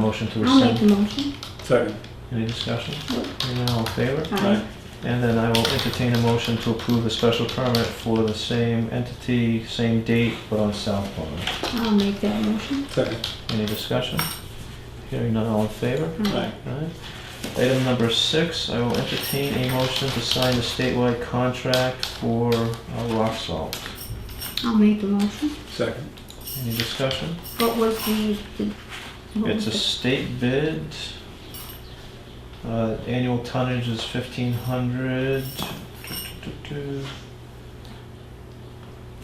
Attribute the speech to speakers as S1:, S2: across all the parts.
S1: motion to
S2: I'll make
S1: rescind?
S2: the motion.
S3: Second.
S1: Any discussion?
S2: Nope.
S1: Hearing none, all in favor?
S2: Aye.
S1: And then I will entertain a motion to approve the special permit for the same entity, same date, but on South Pond.
S2: I'll make that motion.
S3: Second.
S1: Any discussion? Hearing none, all in favor?
S3: Aye.
S1: Alright. Item number six, I will entertain a motion to sign the statewide contract for uh, rock salt.
S2: I'll make the motion.
S3: Second.
S1: Any discussion?
S2: What was the, the- what
S1: It's
S2: was
S1: a state bid. Uh, Annual tonnage is fifteen hundred.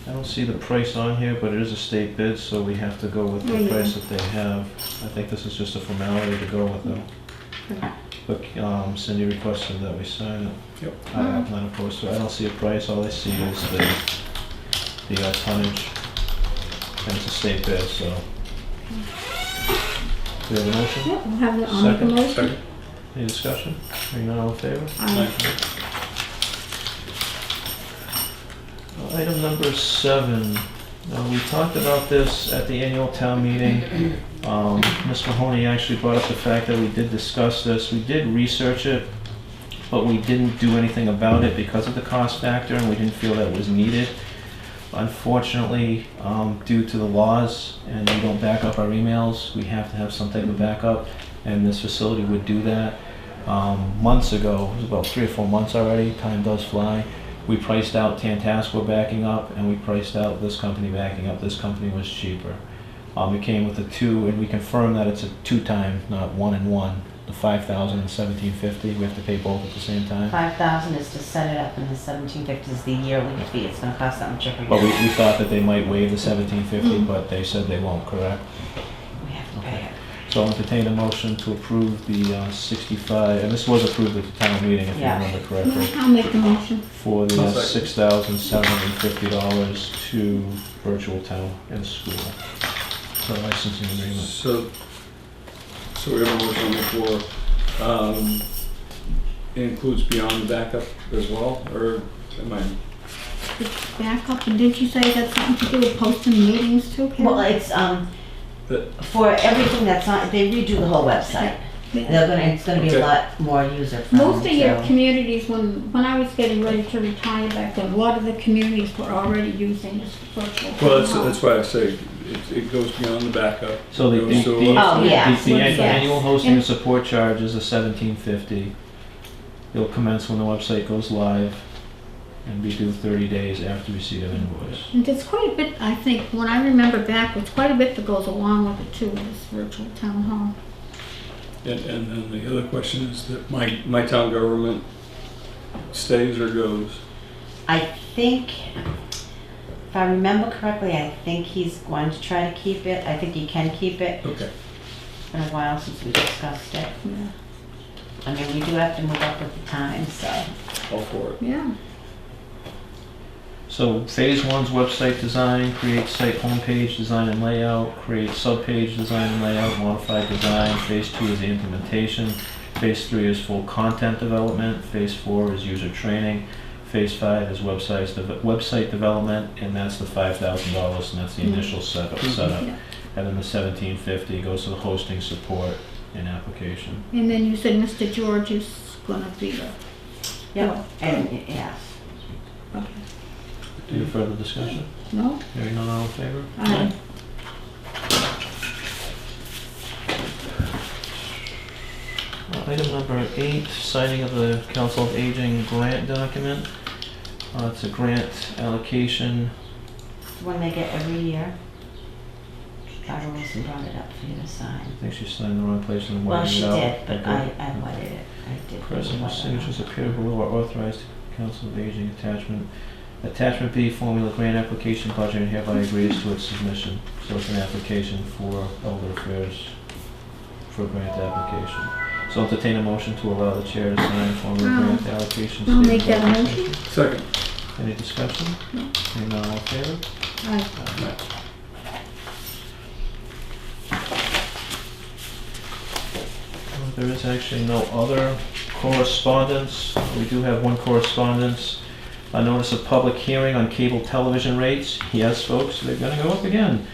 S1: I don't see the price on here, but it is a state bid, so we have to go with the
S2: Yeah.
S1: price that they have. I think this is just a formality to go with them.
S2: Okay.
S1: But um, Cindy requested that we sign it.
S3: Yep.
S1: I am not opposed to it. I don't see a price, all I see is the, the uh, tonnage. And it's a state bid, so. Do we have a motion?
S2: Yep, we'll have the, I'll make the
S1: Second.
S2: motion.
S3: Second.
S1: Any discussion? Hearing none, all in favor?
S2: Aye.
S1: Uh, Item number seven, Uh, we talked about this at the annual town meeting. Um, Ms. Mahoney actually brought up the fact that we did discuss this, we did research it, but we didn't do anything about it because of the cost factor, and we didn't feel that was needed. Unfortunately, um, due to the laws, and we don't back up our emails, we have to have some type of backup, and this facility would do that. Um, months ago, it was about three or four months already, time does fly, we priced out Tantascwa backing up, and we priced out this company backing up, this company was cheaper. Um, it came with a two, and we confirmed that it's a two time, not one and one, the five thousand and seventeen fifty, we have to pay both at the same time.
S4: Five thousand is to set it up and the seventeen fifty is the yearly fee. It's gonna cost that much every
S1: But we,
S4: year.
S1: we thought that they might waive the seventeen fifty,
S2: Mm.
S1: but they said they won't, correct?
S4: We have to pay it.
S1: So I'll entertain a motion to approve the uh, sixty-five, and this was approved at the town meeting, if you
S4: Yeah.
S1: remember correctly,
S2: I'll make the motion.
S1: for the uh,
S3: I'll second.
S1: six thousand seven hundred and fifty dollars to virtual town and school. For licensing agreement.
S3: So, so we have a motion on the floor. Um, it includes beyond the backup as well, or am I?
S2: Back up, and didn't you say that's something to do with posting meetings too, Karen?
S4: Well, it's, um,
S3: The-
S4: for everything that's on, they redo the whole website. They're gonna, it's gonna be
S3: Okay.
S4: a lot more user friendly.
S2: Most of your communities, when, when I was getting ready to retire back then, a lot of the communities were already using this virtual.
S3: Well, that's,
S2: town hall.
S3: that's why I say it, it goes beyond the backup.
S1: So the,
S3: It
S1: the,
S3: goes
S1: the,
S3: to, uh,
S4: Oh, yeah.
S1: the an-
S4: yes.
S1: annual hosting and support charge is a seventeen fifty. It'll commence when the website goes live and be due thirty days after receipt of invoice.
S2: And there's quite a bit, I think, when I remember back, there's quite a bit that goes along with it too, with this virtual town hall.
S3: And, and then the other question is that my, my town government stays or goes?
S4: I think, if I remember correctly, I think he's going to try to keep it. I think he can keep it.
S3: Okay.
S4: It's been a while since we discussed it.
S2: Yeah.
S4: I mean, we do have to move up with the times, so.
S3: All for it.
S2: Yeah.
S1: So phase one's website design, create site homepage design and layout, create subpage design and layout, modify design. Phase two is the implementation. Phase three is full content development. Phase four is user training. Phase five is websites, deve- website development, and that's the five thousand dollars, and that's the initial setup,
S3: Mhm.
S1: setup.
S2: Yeah.
S1: And then the seventeen fifty goes to the hosting, support, and application.
S2: And then you said Mr. George is gonna be the.
S4: Yep, and, yes.
S2: Okay.
S3: Mm-hmm.
S1: Any further discussion?
S2: No?
S1: Hearing none, all in favor?
S2: Aye.
S1: Uh, Item number eight, signing of the Council of Aging grant document. Uh, It's a grant allocation.
S4: One they get every year. Barbara Wilson brought it up for you to sign.
S1: I think she signed the wrong place and
S4: Well,
S1: whited
S4: she
S1: it out.
S4: did, but I,
S1: Okay.
S4: I whited it. I did.
S1: Present
S4: white it
S1: signatures appear below are authorized to Council of Aging attachment. Attachment B, formula grant application budget and hereby agrees to its submission. So it's an application for elder affairs for grant application. So I'll entertain a motion to allow the chair to sign formula
S2: Um,
S1: grant allocation.
S2: I'll make
S1: statement.
S2: that motion.
S3: Second.
S1: Any discussion?
S2: No.
S1: Hearing none, all in favor?
S2: Aye.
S1: Well, There is actually no other correspondence. We do have one correspondence. A notice of public hearing on cable television rates. Yes, folks, they're gonna go up again.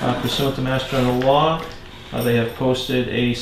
S1: Uh, Pursuant to Mass General Law, uh, they have posted a